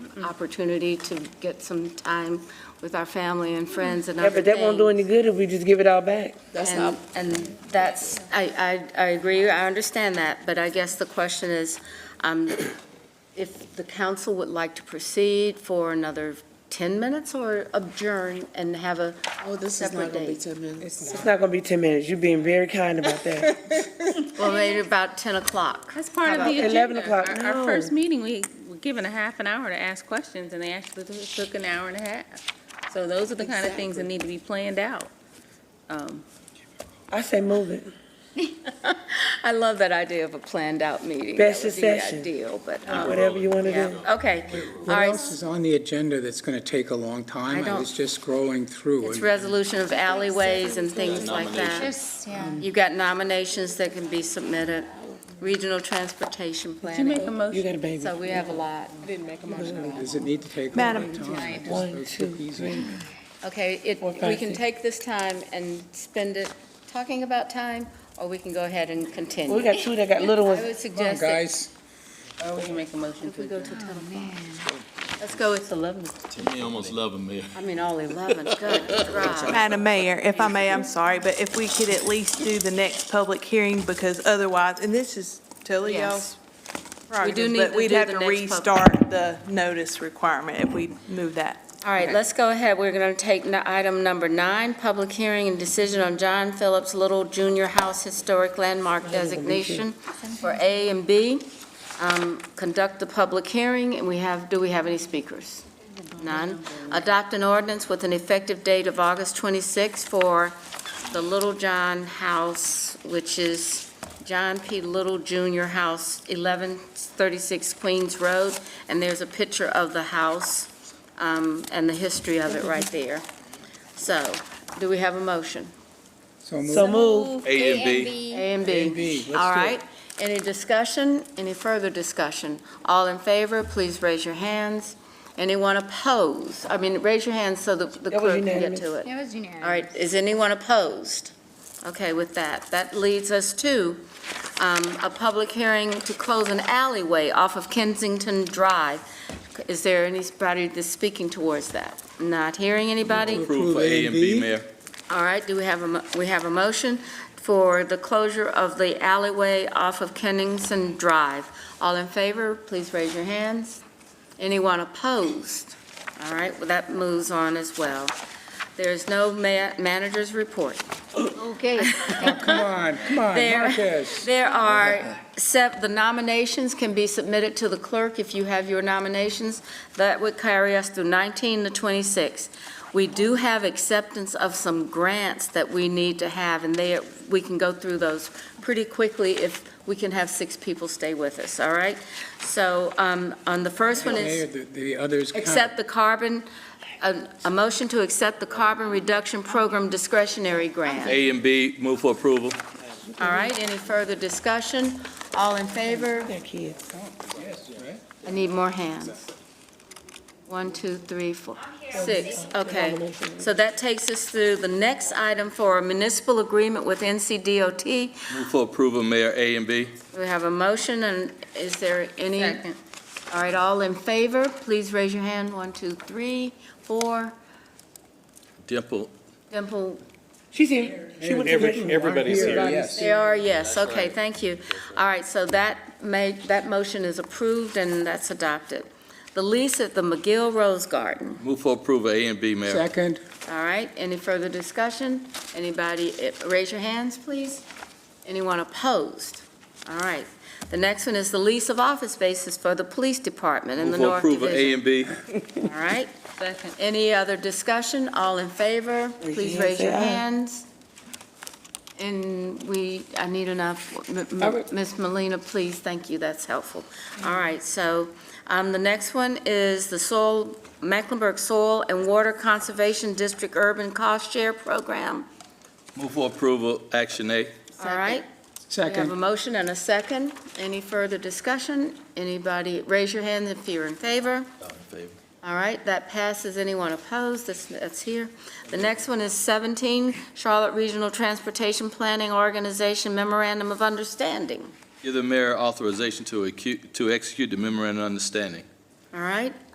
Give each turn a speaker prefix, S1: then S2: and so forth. S1: Mm-hmm. opportunity to get some time with our family and friends and
S2: Yeah,
S1: other
S2: but that won't do
S1: things.
S2: any good if we just give it all back.
S3: That's
S1: And-
S3: not,
S1: And that's, I, I, I agree, I understand that, but I guess the question is, um, if the council would like to proceed for another 10 minutes or adjourn and have a,
S3: oh, this is
S1: Separate
S3: not gonna be
S1: date.
S3: ten minutes.
S2: It's not gonna be 10 minutes. You're being very kind about that.
S1: well, maybe about 10 o'clock.
S4: That's part of
S2: How
S4: the
S2: about 11
S4: agenda.
S2: o'clock?
S4: Our- Our
S2: No.
S4: first meeting, we were given a half an hour to ask questions, and they actually took- took an hour and a half. So those are the kind of things that need to be planned out. Um,
S2: I say move it.
S1: I love that idea of a planned out meeting.
S2: Best
S1: That would be
S2: session.
S1: Ideal, but, um,
S2: Whatever you wanna
S1: yeah,
S2: do.
S1: okay. All
S5: What
S1: right,
S5: else is on the agenda that's going to take a long time?
S1: I
S5: I was just scrolling through.
S1: it's
S5: and-
S1: resolution of alleyways and things like that.
S6: There's, yeah.
S1: You've got nominations that can be submitted, regional transportation
S4: Did you make
S1: planning.
S4: a
S2: You
S4: motion?
S2: got a baby.
S1: So we have a lot.
S3: Didn't make a motion.
S5: Does it need to take all
S2: Madam
S5: that time?
S1: Giant.
S5: Just
S2: One,
S5: those
S2: two,
S5: cookies
S2: three.
S5: and-
S1: Okay, it,
S2: Or
S1: we can
S2: fancy.
S1: take this time and spend it talking about time, or we can go ahead and continue.
S2: We got two that got little
S1: I
S2: ones.
S1: would
S5: Come on,
S1: suggest that
S5: guys.
S4: Or we can make a motion
S1: if
S4: to
S1: we go
S4: adjourn.
S1: to 10 o'clock. Let's go with 11,
S6: To me, almost love them, Mayor.
S1: I mean, all 11, good, God.
S7: Madam Mayor, if I may, I'm sorry, but if we could at least do the next public hearing, because otherwise, and this is totally
S1: Yes.
S7: y'all's
S1: We do
S7: prerogative,
S1: need
S7: but
S1: to
S7: we'd
S1: do
S7: have
S1: the
S7: to
S1: next pub-
S7: restart the notice requirement if we move that.
S1: All right, let's go ahead. We're going to take n- item number nine, public hearing and decision on John Phillips Little Junior House Historic Landmark Designation for A and B. Um, Conduct the public hearing, and we have, do we have any speakers? None. Adopt an ordinance with an effective date of August 26 for the Little John House, which is John P. Little Junior House, 1136 Queens Road, and there's a picture of the house um, and the history of it right there. So, do we have a motion?
S5: So
S2: So
S5: move.
S2: move.
S6: A and B.
S1: A and B.
S5: A and B, let's do
S1: All
S5: it.
S1: right, any discussion, any further discussion? All in favor, please raise your hands. Anyone opposed? I mean, raise your hands so that the
S2: That was
S1: clerk can get
S2: unanimous.
S1: to it.
S6: It was junior.
S1: All right, is anyone opposed? Okay, with that, that leads us to um, a public hearing to close an alleyway off of Kensington Drive. Is there anybody that's speaking towards that? Not hearing anybody?
S6: Approve for A and B, Mayor.
S1: All right, do we have a, mo- we have a motion for the closure of the alleyway off of Kennington Drive. All in favor, please raise your hands. Anyone opposed? All right, well, that moves on as well. There is no ma- manager's report.
S6: Okay.
S5: Oh, Come on, come on,
S1: There-
S5: Marcus.
S1: There are, sep- the nominations can be submitted to the clerk if you have your nominations. That would carry us through 19 to 26. We do have acceptance of some grants that we need to have, and they, we can go through those pretty quickly if we can have six people stay with us, all right? So um, on the first one is...
S5: Mayor, the- The others count.
S1: Accept the carbon, a, a motion to accept the carbon reduction program discretionary grant.
S6: A and B, move for approval.
S1: All right, any further discussion? All in favor?
S2: They're kids.
S5: Yes, right?
S1: I need more hands. One, two, three, four, six, okay. So that takes us through the next item for a municipal agreement with NCDOT.
S6: Move for approval, Mayor, A and B.
S1: We have a motion, and is there any?
S4: Second.
S1: All right, all in favor, please raise your hand. One, two, three, four.
S6: Dimple,
S1: Dimple,
S2: She's here. She went to the-
S5: Everybody's here, yes.
S1: They are, yes, okay, thank you. All right, so that made, that motion is approved and that's adopted. The lease at the McGill Rose Garden,
S6: move for approval, A and B, Mayor.
S5: Second,
S1: all right, any further discussion? Anybody, eh, raise your hands, please. Anyone opposed? All right. The next one is the lease of office spaces for the police department in the
S6: Move for
S1: North
S6: approval, A
S1: Division.
S6: and B.
S1: All right,
S4: Second.
S1: any other discussion? All in favor,
S2: your
S1: please
S2: hand,
S1: raise
S2: say
S1: your
S2: aye.
S1: hands. And we, I need enough, M- M-
S2: I would-
S1: Ms. Molina, please, thank you, that's helpful. All right, so um, the next one is the soil, Mecklenburg Soil and Water Conservation District Urban Cost Share Program.
S6: Move for approval, Action A.
S1: All right, we have a
S5: second,
S1: motion and a second. Any further discussion? Anybody, raise your hand if you're in favor. All right, that passes. Anyone opposed? That's, that's here. The next one is 17, Charlotte Regional Transportation Planning Organization Memorandum of Understanding.
S6: Give the mayor authorization to acu- to execute the memorandum of understanding.
S1: All right,